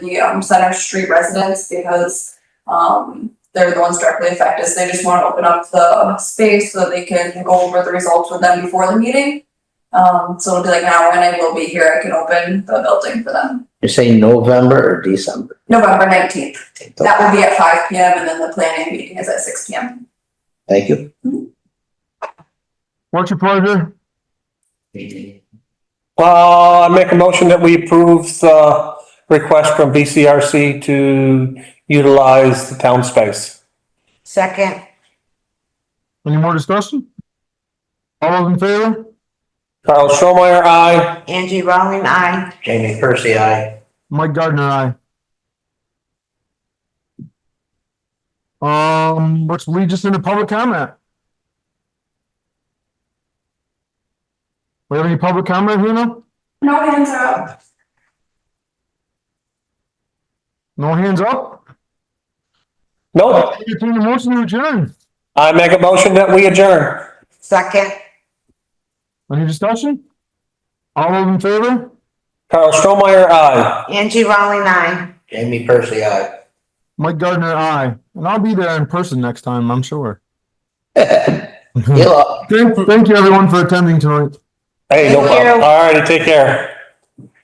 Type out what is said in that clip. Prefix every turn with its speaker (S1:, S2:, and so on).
S1: the um Center Street residents because um they're the ones directly affected, so they just wanna open up the space so that they can go over the results with them before the meeting. Um, so it'll be like an hour and I will be here, I can open the building for them.
S2: You're saying November or December?
S1: November nineteenth, that will be at five P M and then the planning meeting is at six P M.
S2: Thank you.
S3: What's your pleasure?
S4: Uh, I make a motion that we approve the request from VCRC to utilize the town space.
S5: Second,
S3: Any more discussion? All those in favor?
S4: Carl Stromeyer, aye.
S5: Angie Rowland, I.
S2: Jamie Percy, I.
S3: Mike Gardner, aye. Um, which leads us into public comment. We have any public comment here now?
S1: No hands are up.
S3: No hands up?
S4: Nope.
S3: Entertain a motion to adjourn.
S4: I make a motion that we adjourn.
S5: Second,
S3: Any discussion? All those in favor?
S4: Carl Stromeyer, aye.
S5: Angie Rowland, I.
S2: Jamie Percy, I.
S3: Mike Gardner, aye. And I'll be there in person next time, I'm sure.
S2: Hello.
S3: Thank, thank you everyone for attending tonight.
S4: Hey, no
S5: Thank you.
S4: problem. All righty, take care.